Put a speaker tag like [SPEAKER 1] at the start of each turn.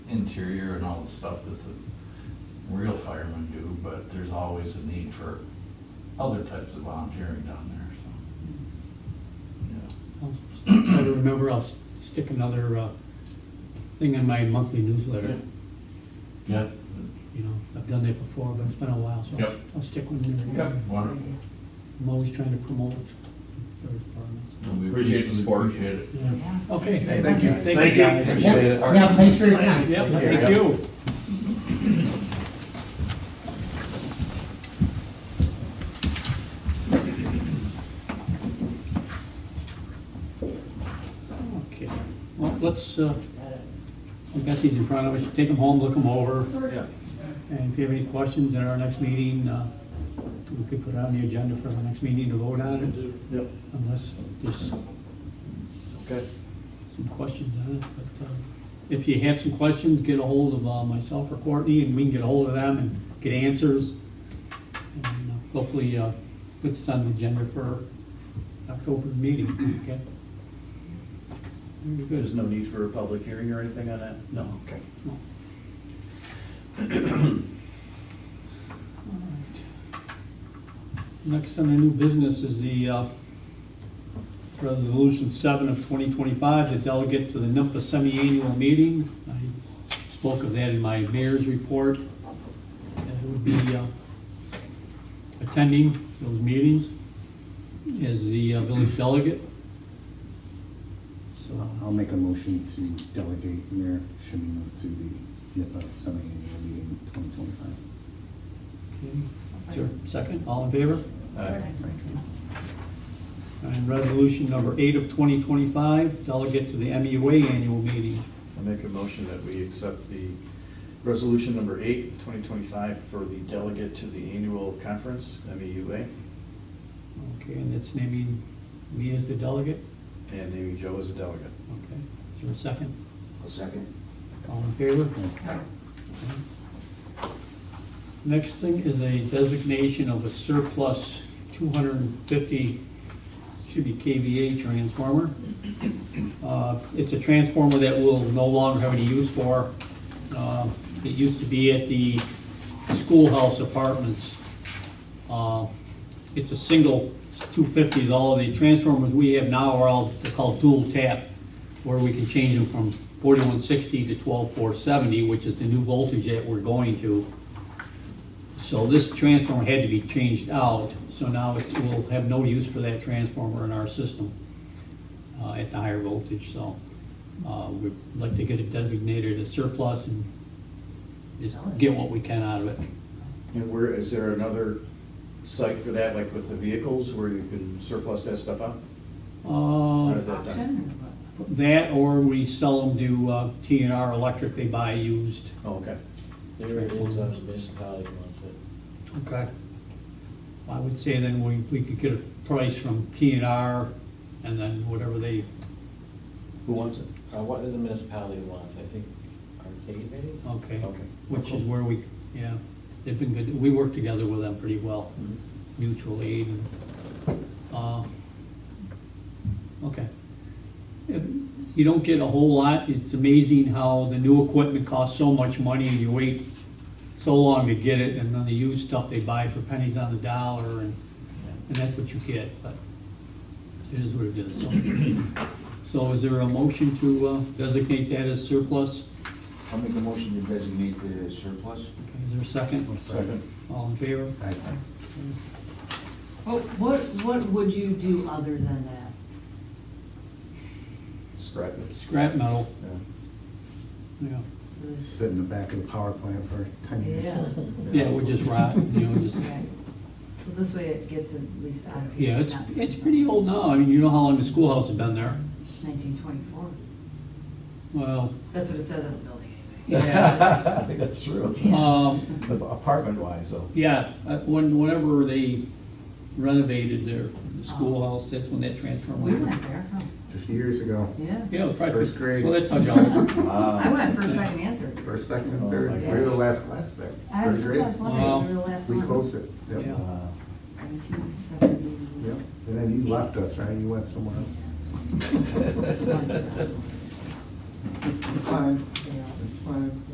[SPEAKER 1] interior and all the stuff that the real firemen do, but there's always a need for other types of volunteering down there, so.
[SPEAKER 2] I'll Try to remember, I'll s- stick another uh, thing in my monthly
[SPEAKER 1] Yeah.
[SPEAKER 2] newsletter.
[SPEAKER 1] Yeah,
[SPEAKER 2] You know, I've done that before, but it's been a while, so I'll-
[SPEAKER 1] Yep.
[SPEAKER 2] I'll stick one in there.
[SPEAKER 1] okay, wonderful.
[SPEAKER 2] I'm always trying to promote their departments.
[SPEAKER 1] And we
[SPEAKER 3] Appreciate the support.
[SPEAKER 1] Appreciate it.
[SPEAKER 2] Yeah.
[SPEAKER 4] Yeah.
[SPEAKER 2] Okay.
[SPEAKER 5] Thank you.
[SPEAKER 2] Thank you. guys.
[SPEAKER 5] Appreciate it.
[SPEAKER 4] Yeah, thanks for your time.
[SPEAKER 2] Yep,
[SPEAKER 5] Take care.
[SPEAKER 2] thank you. Okay, well, let's, uh, we've got these in front of us, take them home, look them over,
[SPEAKER 5] Yeah.
[SPEAKER 2] and if you have any questions at our next meeting, uh, we could put it on the agenda for our next meeting to vote on it,
[SPEAKER 5] Yep,
[SPEAKER 2] unless there's
[SPEAKER 5] okay.
[SPEAKER 2] some questions on it, but uh, if you have some questions, get a hold of uh, myself or Courtney, and we can get a hold of them and get answers. And uh, Hopefully, uh, put this on the agenda for October meeting, okay? Very
[SPEAKER 3] There's
[SPEAKER 2] good.
[SPEAKER 3] no need for a public hearing or anything on that?
[SPEAKER 2] No.
[SPEAKER 3] Okay.
[SPEAKER 2] No. All right. Next on the new business is the uh, Resolution 7 of 2025, the delegate to the NIPA semi-annual meeting. I spoke of that in my mayor's report. And I would be uh, attending those meetings as the uh, village delegate. So
[SPEAKER 6] I'll I'll make a motion to delegate Mayor Shimino to the NIPA semi-annual meeting 2025.
[SPEAKER 2] Sure, second, all in favor?
[SPEAKER 3] Uh,
[SPEAKER 4] Okay.
[SPEAKER 2] And resolution number eight of 2025, delegate to the MEUA annual meeting.
[SPEAKER 3] I make a motion that we accept the resolution number eight, 2025, for the delegate to the annual conference, E MEUA,
[SPEAKER 2] Okay, and that's naming me as the delegate?
[SPEAKER 3] and naming Joe as a delegate.
[SPEAKER 2] Okay, is there a second?
[SPEAKER 5] A second.
[SPEAKER 2] All in favor? Next thing is a designation of a surplus 250, should be KVA transformer. Uh, It's a transformer that we'll no longer have any use for. Uh, It used to be at the schoolhouse apartments. Uh, It's a single 250, all the transformers we have now are all they're called dual tap, where we can change them from 4160 to 12470, which is the new voltage that we're going to. So this transformer had to be changed out, so now it will have no use for that transformer in our system uh, at the higher voltage, so uh, we'd like to get it designated as surplus and just get what we can out of it.
[SPEAKER 3] And where, is there another site for that, like with the vehicles, where you can surplus that stuff out? How
[SPEAKER 2] Uh,
[SPEAKER 3] does that done?
[SPEAKER 4] Auction or
[SPEAKER 2] That, or we sell them to uh, TNR Electric, they buy used.
[SPEAKER 3] Oh, okay.
[SPEAKER 7] There it is on the municipality Uh, wants it.
[SPEAKER 2] Okay. I would say then we, we could get a price from TNR and then whatever they,
[SPEAKER 3] Who wants it?
[SPEAKER 7] Uh, what does the municipality wants? I think arcade maybe?
[SPEAKER 2] okay.
[SPEAKER 3] Okay.
[SPEAKER 2] Which is where we, yeah, they've been good, we work together with them pretty well, mutual aid and, uh, okay. If You don't get a whole lot, it's amazing how the new equipment costs so much money and you wait so long to get it and then the used stuff they buy for pennies on the dollar and, and that's what you get, but it is what it is. so. So is there a motion to uh, designate that as surplus?
[SPEAKER 5] I'll make a motion to designate the surplus.
[SPEAKER 2] Okay, Is there a second?
[SPEAKER 6] Second.
[SPEAKER 2] All in favor?
[SPEAKER 6] Aye.
[SPEAKER 4] what? What, Oh, what, what would you do other than that?
[SPEAKER 3] Scrap it.
[SPEAKER 2] Scrap metal,
[SPEAKER 3] Yeah.
[SPEAKER 2] yeah.
[SPEAKER 4] So this-
[SPEAKER 6] Sit in the back of the power plant for 10 years.
[SPEAKER 4] Yeah,
[SPEAKER 2] Yeah, it would just rot, you know, just,
[SPEAKER 4] right. So this way it gets at least out of here.
[SPEAKER 2] yeah, it's, it's pretty old now. I mean, you know how long the schoolhouse has been there.
[SPEAKER 4] Nineteen twenty-four.
[SPEAKER 2] Well,
[SPEAKER 4] That's what it says on the building anyway.
[SPEAKER 3] I think that's true.
[SPEAKER 2] um,
[SPEAKER 3] Apartment wise, though.
[SPEAKER 2] yeah, uh, when, whenever they renovated their the schoolhouse, that's when that transformer
[SPEAKER 4] We
[SPEAKER 2] went.
[SPEAKER 4] went there, huh?
[SPEAKER 6] 50 years ago,
[SPEAKER 4] Yeah.
[SPEAKER 2] Yeah, it was probably.
[SPEAKER 6] First grade.
[SPEAKER 2] So that touch all.
[SPEAKER 6] Uh,
[SPEAKER 4] I
[SPEAKER 3] Ah,
[SPEAKER 4] went first, second, and third.
[SPEAKER 6] first, second, and third, we were the last class there.
[SPEAKER 4] I was
[SPEAKER 6] First
[SPEAKER 4] just, I was
[SPEAKER 6] grade,
[SPEAKER 4] wondering, we were the last one.
[SPEAKER 6] we closed it. Yep.
[SPEAKER 2] Yeah.
[SPEAKER 3] ah.
[SPEAKER 4] Nineteen seventy.
[SPEAKER 6] Yep. And then you left us, right? You went somewhere else. It's fine,
[SPEAKER 4] Yeah.
[SPEAKER 6] it's fine.